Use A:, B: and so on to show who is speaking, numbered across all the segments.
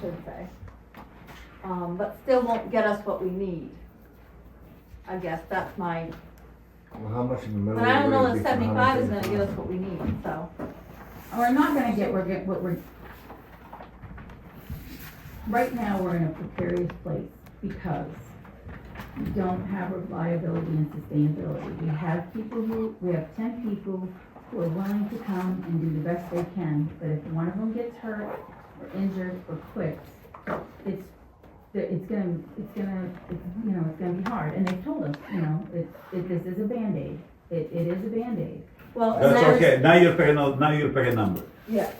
A: should say. Um, but still won't get us what we need. I guess that's my,
B: Well, how much in the middle?
A: but I don't know
B: would it
A: that
B: be for
A: seventy-five is gonna give us
B: 135?
A: what we need, so.
C: Oh, We're not gonna get, we're, get- what we're, right now, we're in a precarious place because we don't have reliability and sustainability. We have people who, we have ten people who are willing to come and do the best they can, but if one of them gets hurt or injured or quits, it's, it's gonna, it's gonna, it's, you know, it's gonna be hard. And they've told us, you know, it, it, this is a Band-Aid. It, it is a Band-Aid.
A: Well, and
D: That's
A: there's-
D: okay, now you're picking, a- now you're picking a number.
A: Yeah.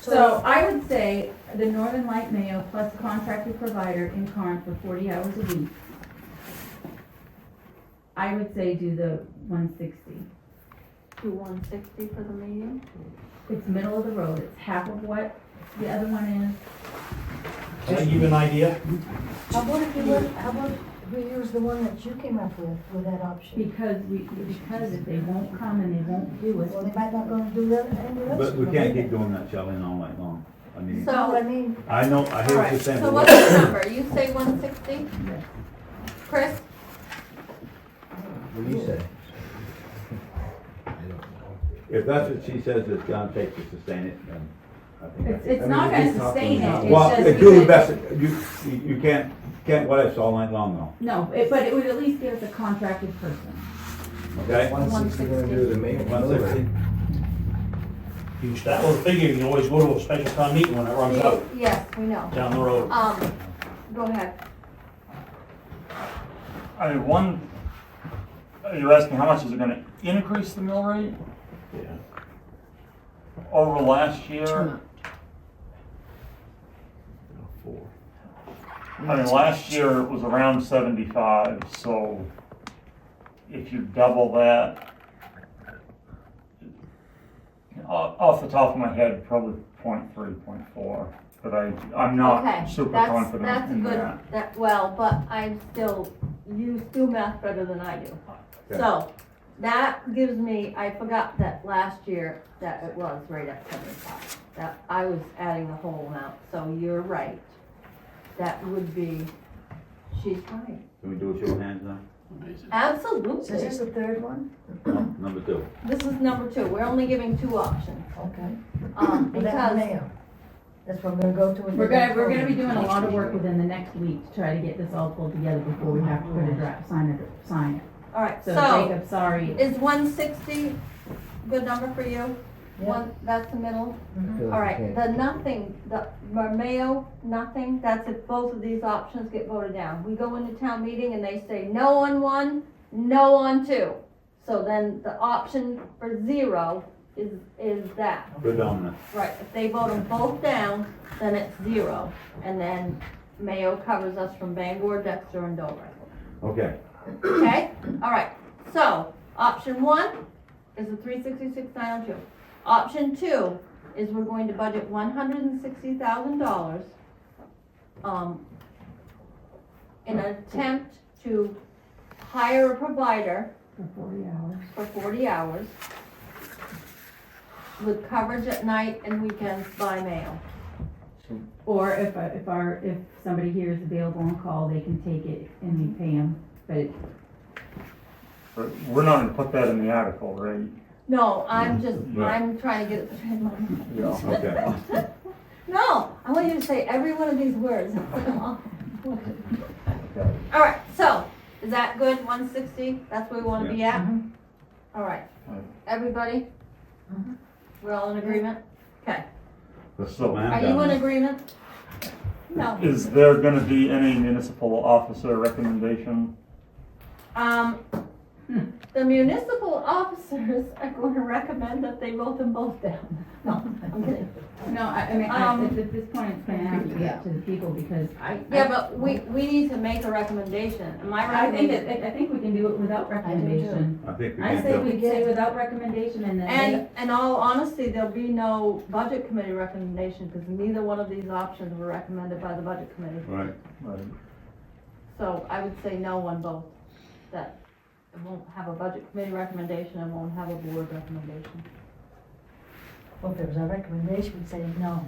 C: So I would say the Northern Light Mayo plus contracted provider in Karn for forty hours a week. I would say do the one sixty.
A: Do one sixty for the meeting?
C: It's middle of the road, it's half of what the other one
E: Can I give you an idea?
F: How about if you, let- how about we use the one that you came up with, with that
C: is
F: option?
C: because we, because if they won't come and they won't do
F: Well, they
C: it.
F: might not gonna do that, and the rest.
D: But we
F: of
D: can't
F: them.
D: keep doing that, Shelley, all night long. I mean,
A: So-
F: No, I mean,
D: I know, I hear what
A: Alright,
D: you're saying.
A: so
D: but
A: what's the number? You say one sixty?
C: Yes.
A: Chris?
B: What do you say?
D: If that's what she says it's gonna take to sustain it, then I think.
C: It's,
D: that's-
C: it's not gonna sustain it,
D: Well,
C: it's just.
D: do the
C: because-
D: best, you, you- you can't, can't what ifs all night long though,
C: No, it, but it would at least give us a contracted person.
D: okay?
B: One sixty gonna do the main,
D: One
B: middle
D: sixty.
B: rate.
E: You start with a figure, you can always go to a special town meeting when it runs out
A: Yes, we know.
E: down the road.
A: Um, go ahead.
G: I mean, one, you're asking how much is it gonna increase the mill rate
E: Yeah.
G: over last year?
D: Four.
G: I mean, last year it was around seventy-five, so if you double that, off, off the top of my head, probably point three, point four, but I, I'm
A: Okay,
G: not super
A: that's-
G: confident in that.
A: That's good, that, well, but I'm still, you do math better than I do.
D: Okay.
A: So, that gives me, I forgot that last year, that it was right at seventy-five. That, I was adding the whole amount, so you're right. That would be, she's right,
D: Can we do a show of hands now?
F: so this is
A: absolutely.
F: the third one?
D: No, Number two.
A: This is number two, we're only giving two options,
F: Okay.
A: um,
F: Well, that's
A: because,
F: Mayo. That's what we're gonna go to. in the
C: We're gonna,
F: next
C: we're gonna be
F: one.
C: doing a lot of work within the next week to try to get this all pulled together before we have to put a draft, sign it, sign it.
A: alright,
C: So
A: so,
C: Jacob, sorry,
A: is one sixty good number for you?
F: Yeah.
A: One, that's the middle?
F: Mhm.
A: All right, the nothing, the Mayo, nothing, that's if both of these options get voted down. We go into town meeting and they say no on one, no on two. So then the option for zero is, is that,
D: Predominant.
A: right? If they vote them both down, then it's zero. And then Mayo covers us from Bangor, Dexter, and Dover.
D: Okay,
A: Okay, all right, so, option one is the three sixty-six nine oh two. Option two is we're going to budget one hundred and sixty thousand dollars, um, in an attempt to hire a provider
C: for forty hours.
A: for forty hours with coverage at night and weekends by mail.
C: Or if, uh, if our, if somebody here is available on call, they can take it and we pay them, but
G: But we're not gonna put that in the article, right?
A: No, I'm just,
D: Right.
A: I'm trying to get it in my mind.
G: Yeah.
D: okay.
A: No, I want you to say every one of these words. All right, so, is that good, one sixty, that's where we wanna be at? Mm-hmm.
F: Mhm.
A: All right,
G: Right.
A: everybody?
F: Mhm.
A: We're all in agreement? Okay,
D: Let's slow
A: are
D: down.
A: you in agreement? No,
G: Is there gonna be any municipal officer recommendation
A: um, the municipal officers are gonna recommend that they vote them both down. No, I'm kidding.
C: No, I, I mean, I,
A: Um,
C: at this point, it's gonna have to be up to the people because I.
A: Yeah, but we, we need to make a recommendation, am I right?
C: I think it, I I think we can do it without recommendation.
D: I think we
C: I
D: can
C: say
D: do it.
C: we say without recommendation and then
A: And, in all honesty, there'll be no budget committee recommendation, because neither one of these options were recommended by the budget committee.
D: Right,
A: So I would say no on both, that it won't have a budget committee recommendation and won't have a board recommendation.
F: Well, if there was a recommendation, we'd say no.